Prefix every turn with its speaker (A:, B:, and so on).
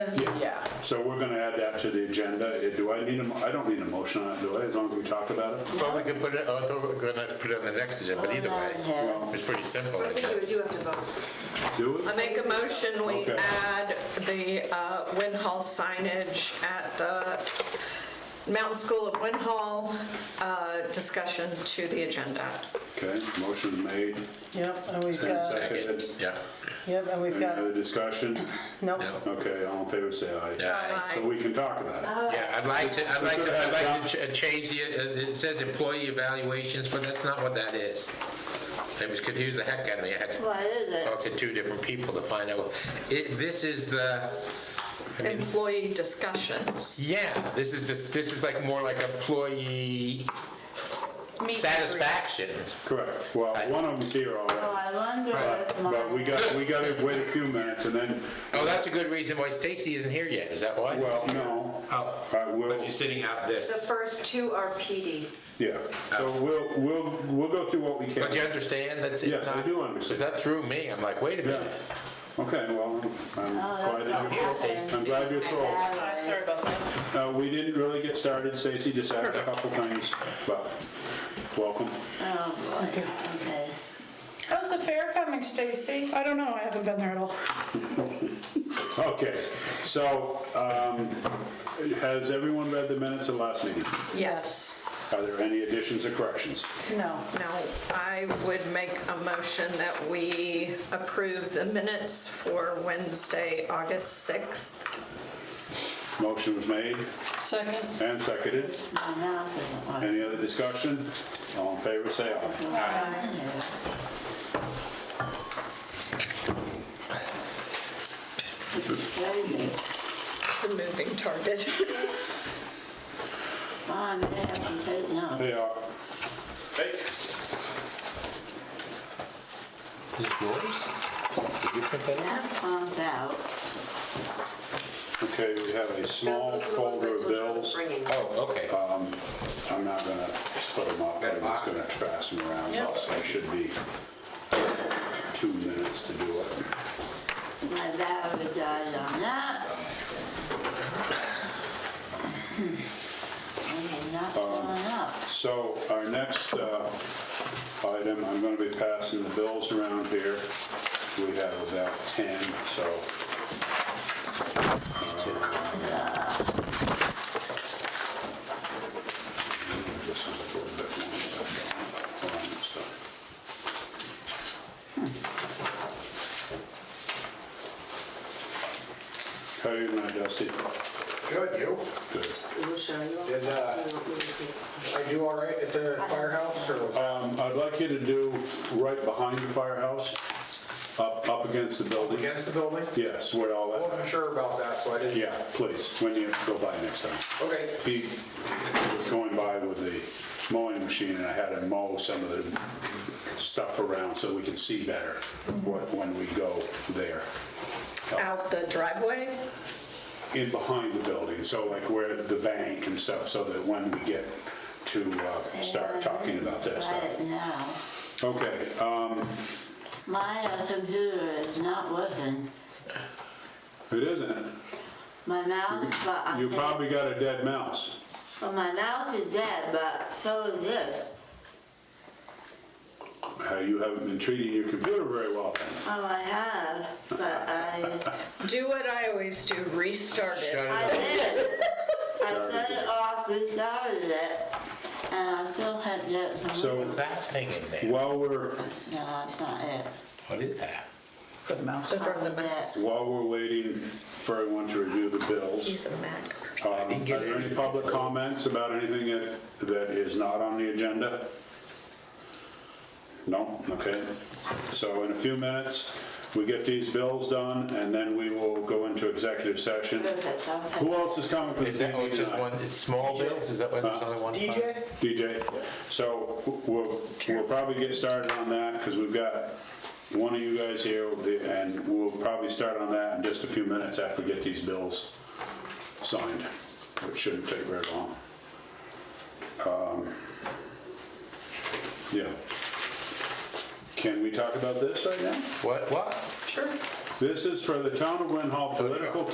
A: So we're gonna add that to the agenda. Eh, Do I need a, mo- I don't need a motion on it, do I, as long as we talk about it?
B: Well, we can put it, oh, I thought we were gonna put it on the next agenda, but either way, it's pretty simple,
C: What
B: I
C: I think you would
B: guess.
C: do have to vote.
A: Do it?
D: I make a motion, we
A: Okay.
D: add the uh, Wind Hall signage at the Mountain School of Wind Hall uh, discussion to the agenda.
A: Okay, motion made.
E: Yep, and we've
A: Ten
E: got,
A: seconds.
B: Yeah,
E: yep, and we've
A: Any
E: got,
A: other discussion?
E: no,
B: no,
A: Okay, all in favor, say aye.
B: yeah.
D: Aye.
A: So we can talk about it.
B: Yeah, I'd like to, I'd like to, I'd like to ch- change the, uh, it says employee evaluations, but that's not what that is. It was confused the heck out of me, I had to
C: What is it?
B: talk to two different people to find out. It, this is the, I mean,
D: Employee discussions.
B: yeah, this is just, this is like more like employee
D: Meet and greet.
B: satisfaction.
A: Correct. Well, one of them's here
C: Oh,
A: already.
C: I wonder what mine.
A: But we got, we gotta wait a few minutes and then,
B: Oh, that's a good reason why Stacy isn't here yet, is that why?
A: well, no.
B: Oh.
A: All right, we'll,
B: But she's sitting out
C: The
B: this.
C: first two are PD.
A: yeah. So we'll, we'll, we'll go through what we can.
B: Oh. But you understand, that's,
A: Yes,
B: it's
A: I
B: not,
A: do understand.
B: is that through me? I'm like, wait a minute.
A: Okay, well, I'm
C: Uh,
A: glad that
B: Here's
A: you're,
B: Stacy.
A: I'm glad you're full.
C: Sorry about that.
A: Uh, we didn't really get started, Stacy just added a couple things, but welcome.
C: Oh, boy, okay.
E: how's the fair coming, Stacy? I don't know, I haven't been there at all.
A: Okay, so, um, has everyone read the minutes of last meeting?
D: Yes.
A: Are there any additions or corrections?
E: No,
D: Now, I would make a motion that we approve the minutes for Wednesday, August 6th.
A: Motion was made
E: second,
A: and seconded.
C: My mouth isn't working.
A: Any other discussion? All in favor, say aye.
C: Crazy.
D: It's a moving target.
C: Mom, they haven't taken off.
A: They are. Hey,
B: Is it yours? Did you print that out?
C: That comes out.
A: Okay, we have a small folder of bills.
B: Oh, okay.
A: I'm not gonna split them up, I'm just gonna pass them around.
E: Yep.
A: So it should be two minutes to do it.
C: My valve dies on that.
A: Um,
C: I mean, not going up.
A: So our next uh, item, I'm going to be passing the bills around here. We have about 10, so. uh, this is a little bit more than that. So, How are you, now, Dusty?
F: Good, you?
A: Good.
F: Did, uh, are you all right at the firehouse or?
A: Um, I'd like you to do right behind the firehouse, up, up against the building.
F: Against the building?
A: Yes, where all
F: I
A: that,
F: wasn't sure about that, so I didn't.
A: yeah, please, when you go by next time.
F: Okay.
A: He was going by with the mowing machine and I had him mow some of the stuff around so we can see better what- when we go there.
D: Out the driveway?
A: in behind the building, so like where the bank and stuff, so that when we get to uh, start talking about that stuff.
C: Right now.
A: Okay, um,
C: My uh, computer is not working.
A: it isn't.
C: My mouth, but I
A: You
C: can't-
A: probably got a dead mouse.
C: Well, my mouth is dead, but so is this.
A: How you haven't been treating your computer very well.
C: Oh, I have, but I,
D: Do what I always do, restart it.
B: Shut it
C: I
B: up.
C: did. I
A: Sorry,
C: cut
A: dear.
C: it off, restarted it, and I still had that. from-
A: So
B: What's that thing in there?
A: while we're,
C: No, that's not it.
B: What is that?
E: good mouse.
D: From the mouse.
A: while we're waiting for everyone to review the bills,
D: He's a Mac person.
A: um, are there any public comments about anything that, that is not on the agenda? No? Okay. So in a few minutes, we get these bills done and then we will go into executive session.
C: Perfect, I'll take
A: Who else is coming for the uh,
B: Is that, oh,
A: DD
B: it's just
A: tonight?
B: one, it's small bills, is that why there's only one?
F: DJ?
A: DJ, so we'll, we'll probably get started on that, because we've got one of you guys here, and we'll probably start on that in just a few minutes after we get these bills signed, which shouldn't take very long. Um, Yeah. Can we talk about this right now?
B: What, what?
E: Sure.
A: This is for the town of Wind Hall political